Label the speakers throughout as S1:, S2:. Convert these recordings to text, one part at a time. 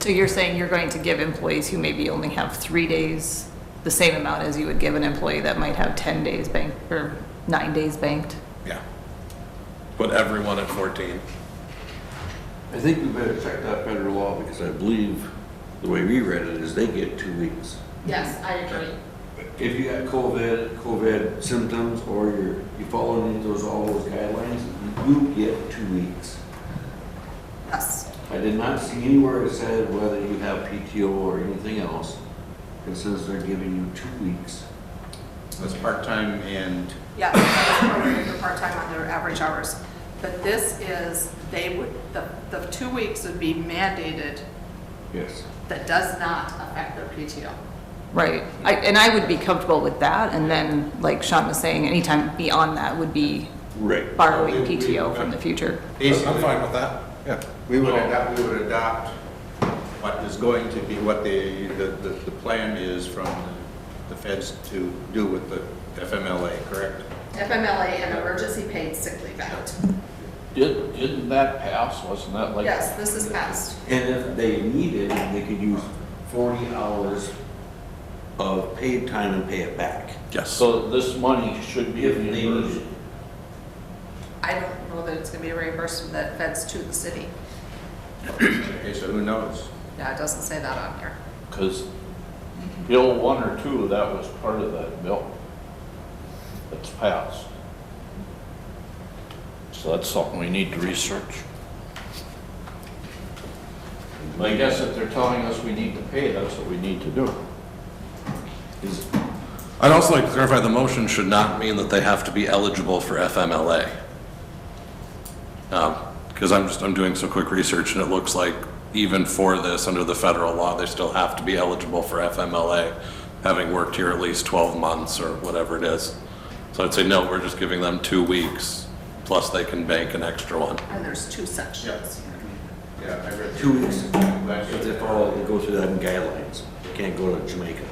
S1: So you're saying you're going to give employees who maybe only have three days the same amount as you would give an employee that might have 10 days banked or nine days banked?
S2: Yeah. Put everyone at 14.
S3: I think we better check that federal law because I believe the way we read it is they get two weeks.
S4: Yes, I agree.
S3: If you got COVID, COVID symptoms, or you're, you follow any of those, all those guidelines, you get two weeks.
S1: Yes.
S3: I did not see anywhere it said whether you have PTO or anything else. It says they're giving you two weeks.
S5: That's part-time and,
S4: Yeah, that was prorated for part-time on their average hours. But this is, they would, the, the two weeks would be mandated
S3: Yes.
S4: that does not affect their PTO.
S1: Right. I- And I would be comfortable with that. And then, like Sean was saying, anytime beyond that would be
S3: Right.
S1: borrowing PTO from the future.
S2: I'm
S5: basically,
S2: fine with that. Yeah.
S5: we would adopt, we would adopt what is going to be, what the, the, the the plan is from the feds to do with the FMLA, correct?
S4: FMLA and emergency paid sick leave act.
S6: Didn't, didn't that pass, wasn't that like?
S4: Yes, this is passed.
S3: And if they needed, they could use forty hours of paid time and pay it back.
S2: Yes.
S6: So this money should be
S3: If they
S6: reimbursed.
S3: needed.
S4: I don't know that it's gonna be reimbursed from the feds to the city.
S5: Okay, so who knows?
S4: Yeah, it doesn't say that on here.
S6: Because Bill one or two, that was part of that bill that's passed. So that's something we need to research. But I guess if they're telling us we need to pay, that's what we need to do. Is,
S2: I'd also like to clarify, the motion should not mean that they have to be eligible for FMLA. Because Um, I'm just, I'm doing some quick research, and it looks like even for this, under the federal law, they still have to be eligible for FMLA, having worked here at least 12 months or whatever it is. So I'd say, no, we're just giving them two weeks, plus they can bank an extra one.
S4: And there's two sections.
S5: Yeah, I read.
S3: Two weeks.
S5: Last
S3: If they
S5: year.
S3: follow, they go through that in guidelines. They can't go to Jamaica.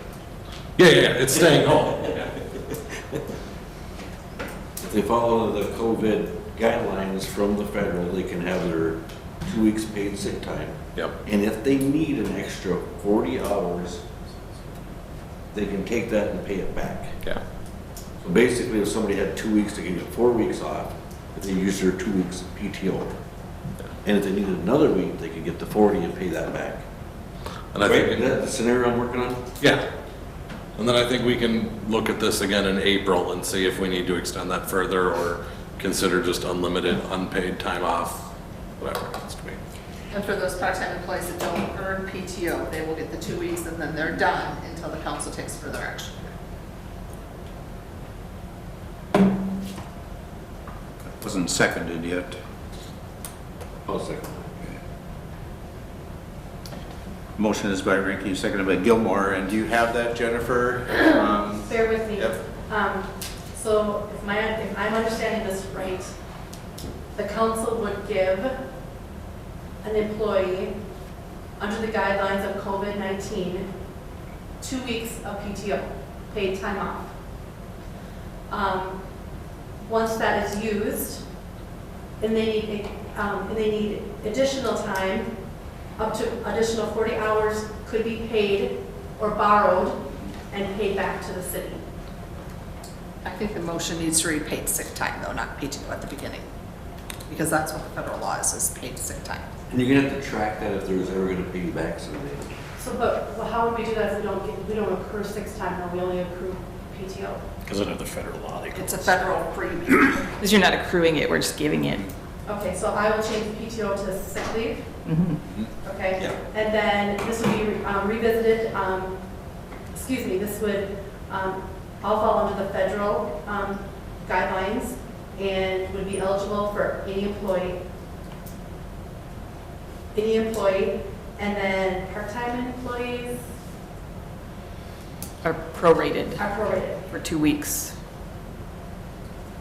S2: Yeah, yeah, yeah, it's staying home.
S3: If they follow the COVID guidelines from the federal, they can have their two weeks paid sick time.
S2: Yep.
S3: And if they need an extra forty hours, they can take that and pay it back.
S2: Yeah.
S3: So basically, if somebody had two weeks, they could get four weeks off if they used their two weeks PTO. And if they needed another week, they could get the forty and pay that back.
S2: And I
S3: Right,
S2: think.
S3: is that the scenario I'm working on?
S2: Yeah. And then I think we can look at this again in April and see if we need to extend that further or consider just unlimited unpaid time off, whatever it has to be.
S4: And for those part-time employees that don't earn PTO, they will get the two weeks and then they're done until the council takes further action.
S5: Wasn't seconded yet.
S2: Oh,
S3: I'll second.
S5: Motion is by Rankin, seconded by Gilmore, and do you have that, Jennifer? Um,
S7: Bear with me.
S5: Yep.
S7: Um, So if my, if I'm understanding this right, the council would give an employee, under the guidelines of COVID-19, two weeks of PTO, paid time off. Um, Once that is used, and they need, um, and they need additional time, up to additional 40 hours could be paid or borrowed and paid back to the city.
S4: I think the motion needs to read paid sick time though, not PTO at the beginning. Because that's what the federal law is, is paid sick time.
S3: And you're gonna have to track that if there's ever gonna pay you back someday.
S7: So, but well, how would we do that if we don't get, we don't accrue six time, or we only accrue PTO?
S6: because under the federal law, they
S4: It's a federal premium.
S1: Because you're not accruing it, we're just giving it.
S7: Okay, so I will change PTO to sick leave,
S1: Mhm.
S7: okay?
S5: Yeah.
S7: And then this would be um, revisited, um, excuse me, this would, um, all fall under the federal, um, guidelines and would be eligible for any employee. Any employee, and then part-time employees
S1: Are prorated
S7: are prorated.
S1: for two weeks.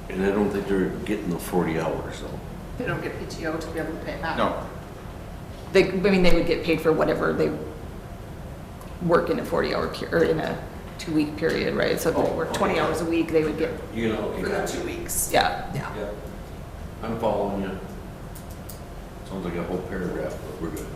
S3: And I don't think they're getting the forty hours though.
S4: They don't get PTO to be able to pay it back.
S5: No,
S1: They, I mean, they would get paid for whatever they work in a 40-hour, pe- or in a two-week period, right? So if they
S3: Oh,
S1: work
S3: okay.
S1: 20 hours a week, they would get,
S3: You know, okay,
S4: For the
S3: gotcha.
S4: two weeks.
S1: yeah.
S4: Yeah.
S3: Yeah. I'm following you. Sounds like a whole paragraph, but we're good.